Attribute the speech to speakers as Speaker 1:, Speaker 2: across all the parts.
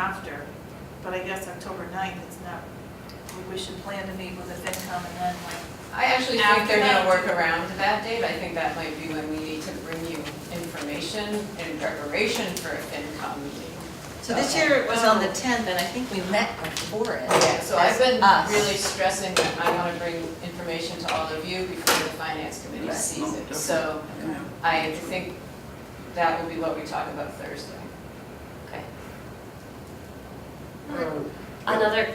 Speaker 1: after, but I guess October 9th, it's not, we- we should plan to meet with the FinCom and then like,
Speaker 2: I actually think they're
Speaker 1: After that.
Speaker 2: gonna work around that date, I think that might be when we need to bring you information in preparation for a FinCom meeting.
Speaker 3: So this year it was on the 10th, and I think we met before it.
Speaker 2: Yeah, so I've
Speaker 3: That's
Speaker 2: been
Speaker 3: us.
Speaker 2: really stressing that I wanna bring information to all of you before the finance committee
Speaker 3: Right.
Speaker 2: sees it. So I think that will be what we talk about Thursday.
Speaker 4: Okay.
Speaker 5: Right.
Speaker 4: Um, Another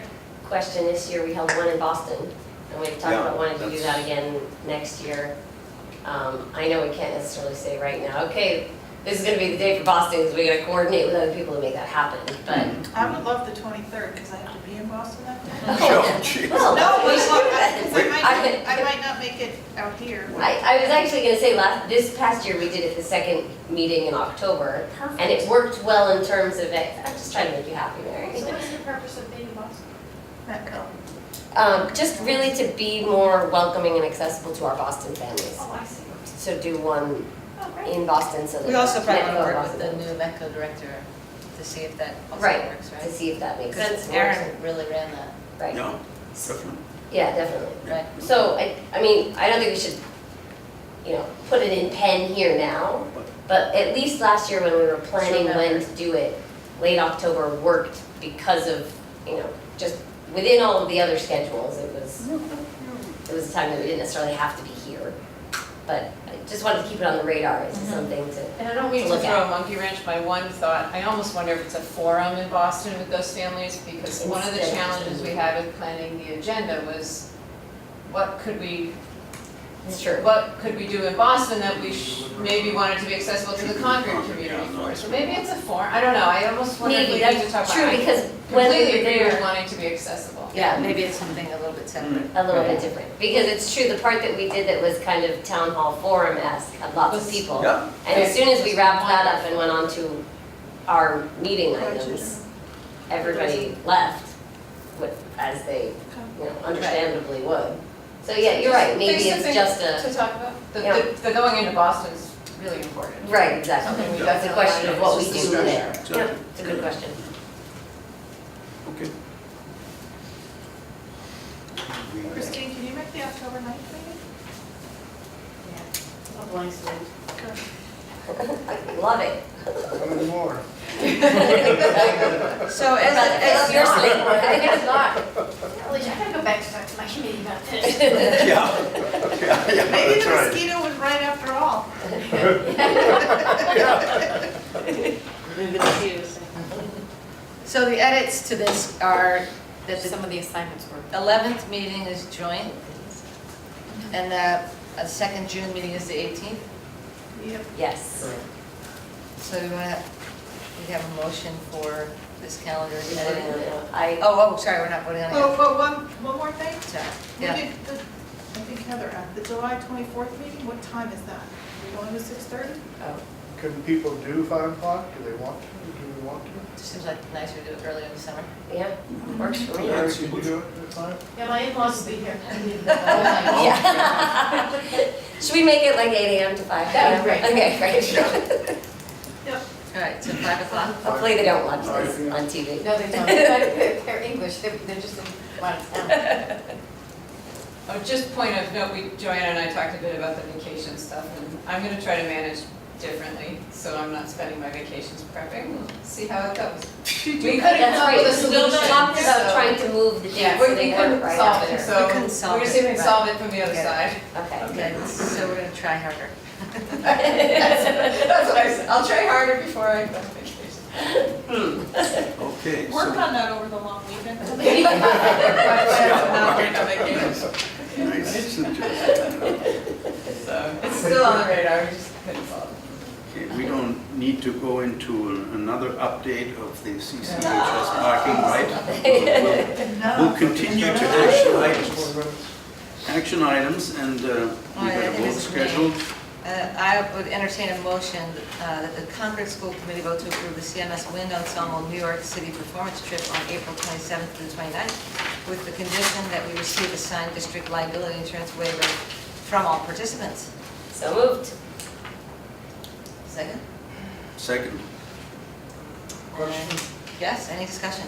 Speaker 4: question, this year we held one in Boston, and we've talked
Speaker 5: Yeah,
Speaker 4: about wanting to do
Speaker 5: that's-
Speaker 4: that again next year. Um, I know we can't necessarily say right now, okay, this is gonna be the day for Boston, because we gotta coordinate with other people to make that happen, but.
Speaker 1: I would love the 23rd because I have to be in Boston that day.
Speaker 5: Oh, geez.
Speaker 4: Well,
Speaker 1: No,
Speaker 4: we
Speaker 1: but
Speaker 4: should do
Speaker 1: I-
Speaker 4: that.
Speaker 1: 'cause I might,
Speaker 4: I-
Speaker 1: I might not make it out here.
Speaker 4: I, I was actually gonna say last, this past year, we did it the second meeting in October, and it
Speaker 1: Perfect.
Speaker 4: worked well in terms of it, I'm just trying to make you happy, Mary.
Speaker 6: So what's the purpose of being in Boston?
Speaker 1: Not go.
Speaker 4: Um, just really to be more welcoming and accessible to our Boston families.
Speaker 6: Oh, I see.
Speaker 4: So do one
Speaker 6: Oh, great.
Speaker 4: in Boston so that.
Speaker 3: We also probably want to
Speaker 4: Metco
Speaker 3: work with the
Speaker 4: Boston.
Speaker 3: new Metco director to see if that also
Speaker 4: Right,
Speaker 3: works,
Speaker 4: to
Speaker 3: right?
Speaker 4: see if that makes sense.
Speaker 3: Because Aaron really ran that,
Speaker 4: Right,
Speaker 5: Yeah, definitely.
Speaker 4: yeah, definitely.
Speaker 3: right?
Speaker 4: So I, I mean, I don't think we should, you know, put it in pen here now, but at least last year when we were planning when to do it, late October worked because of, you know, just within all of the other schedules, it was, it was a time that we didn't necessarily have to be here. But I just wanted to keep it on the radar as
Speaker 2: Mm-hmm.
Speaker 4: something to,
Speaker 2: And I don't mean
Speaker 4: To
Speaker 2: to
Speaker 4: look
Speaker 2: throw
Speaker 4: at.
Speaker 2: a monkey wrench, my one thought, I almost wonder if it's a forum in Boston with those families, because one of the
Speaker 4: Instead of-
Speaker 2: challenges we had with planning the agenda was, what could we,
Speaker 4: it's true.
Speaker 2: what could we do in Boston that we sh- maybe wanted to be accessible to the Concord community for?
Speaker 5: Mm.
Speaker 2: So maybe it's a forum, I don't know, I almost wonder if we
Speaker 4: Maybe,
Speaker 2: need to talk
Speaker 4: that's
Speaker 2: about. I
Speaker 4: true, because when we
Speaker 2: Completely
Speaker 4: were
Speaker 2: agree with
Speaker 4: there-
Speaker 2: wanting to be accessible.
Speaker 3: Yeah, maybe it's something a little bit separate.
Speaker 4: a little bit different, because it's true, the part that we did that was kind of town hall forum-esque, had lots of
Speaker 2: Was-
Speaker 4: people.
Speaker 5: Yeah,
Speaker 4: And as soon as we wrapped that up and went on to our meeting items, everybody left with, as they, you know, understandably would. So yeah, you're right, maybe
Speaker 2: Things to
Speaker 4: it's
Speaker 2: think-
Speaker 4: just
Speaker 2: To
Speaker 4: a,
Speaker 2: talk about, the,
Speaker 4: Yeah.
Speaker 2: the, the going into Boston's really important.
Speaker 4: right, exactly.
Speaker 2: Something we
Speaker 4: That's a
Speaker 2: definitely-
Speaker 4: question of what Oh, we
Speaker 2: it's
Speaker 4: do
Speaker 2: just a
Speaker 4: there.
Speaker 5: discussion.
Speaker 4: Yeah, it's a good question.
Speaker 5: okay.
Speaker 1: Christine, can you make the October 9th meeting?
Speaker 4: Love it.
Speaker 7: Coming more.
Speaker 3: So
Speaker 4: But
Speaker 3: as,
Speaker 4: it's
Speaker 3: as
Speaker 4: your
Speaker 3: your
Speaker 4: sleep,
Speaker 3: sleep,
Speaker 4: it's not.
Speaker 6: Well, I gotta go back to talk to my committee about this.
Speaker 5: Yeah, yeah, yeah,
Speaker 1: Maybe
Speaker 5: that's
Speaker 1: the
Speaker 5: right.
Speaker 1: mosquito was right after all.
Speaker 3: so the edits to this are that the
Speaker 8: Some of the assignments were.
Speaker 3: 11th meeting is joint, and the uh, second June meeting is the 18th.
Speaker 1: Yep.
Speaker 4: Yes.
Speaker 3: So do you want to, we have a motion for this calendar
Speaker 4: We're
Speaker 3: editing?
Speaker 4: gonna- I,
Speaker 3: Oh, oh, sorry, we're not voting on it.
Speaker 1: Oh, but one, one more thing.
Speaker 3: Sorry,
Speaker 1: We
Speaker 3: yeah.
Speaker 1: did the- I think Heather, asked, the July 24th meeting, what time is that? We going to 6:30?
Speaker 7: Can people do five o'clock? Do they want to? Do we want to?
Speaker 3: Seems like nicer to do it earlier in the summer.
Speaker 4: yeah, works for me.
Speaker 5: Yeah, it's-
Speaker 7: Can we do it at five?
Speaker 6: Yeah, my in-laws will be here.
Speaker 8: Oh
Speaker 2: Oh.
Speaker 4: Yeah. Should we make it like eight AM to five?
Speaker 6: That would be
Speaker 4: p.m.?
Speaker 6: great.
Speaker 4: Okay, great.
Speaker 3: All right, so five o'clock?
Speaker 4: Hopefully they don't watch this on TV.
Speaker 8: No, they don't, they're English, they're, they're just in one town.
Speaker 2: Oh, just point of note, we, Joanna and I talked a bit about the vacation stuff, and I'm gonna try to manage differently, so I'm not spending my vacations prepping, We'll see how it goes. We couldn't
Speaker 4: That's
Speaker 2: come up
Speaker 4: right,
Speaker 2: with a
Speaker 4: so we
Speaker 2: solution,
Speaker 4: talked about
Speaker 2: so-
Speaker 4: trying to move the
Speaker 2: Yeah,
Speaker 4: dates
Speaker 2: we
Speaker 4: so
Speaker 2: we
Speaker 4: they weren't
Speaker 2: couldn't
Speaker 4: right
Speaker 2: solve it,
Speaker 4: after.
Speaker 2: so
Speaker 3: We couldn't solve
Speaker 2: we're gonna see if we
Speaker 3: it,
Speaker 2: can
Speaker 3: right.
Speaker 2: solve it from the other
Speaker 3: Yeah.
Speaker 2: side.
Speaker 4: Okay.
Speaker 3: Okay, so we're gonna try harder.
Speaker 2: That's what I said, I'll try harder before I go on vacation.
Speaker 5: Okay,
Speaker 1: Work
Speaker 5: so,
Speaker 1: on that over the long weekend.
Speaker 2: Not during my vacation,
Speaker 5: nice suggestion.
Speaker 2: so it's still on the radar, we just couldn't solve it.
Speaker 5: Okay, we don't need to go into an- another update of the CCHS parking, right? We'll- We'll continue to action items, action items, and uh,
Speaker 3: All
Speaker 5: we
Speaker 3: right, I
Speaker 5: got a
Speaker 3: think
Speaker 5: vote
Speaker 3: it's me.
Speaker 5: scheduled.
Speaker 3: Uh, I would entertain a motion uh, that the Concord School Committee vote to approve the CMS Wind Ensemble New York City performance trip on April 27th through 29th with the condition that we receive a signed district liability insurance waiver from all participants.
Speaker 4: So moved.
Speaker 3: Second?
Speaker 5: Second,
Speaker 7: Question?
Speaker 3: Yes, any discussion?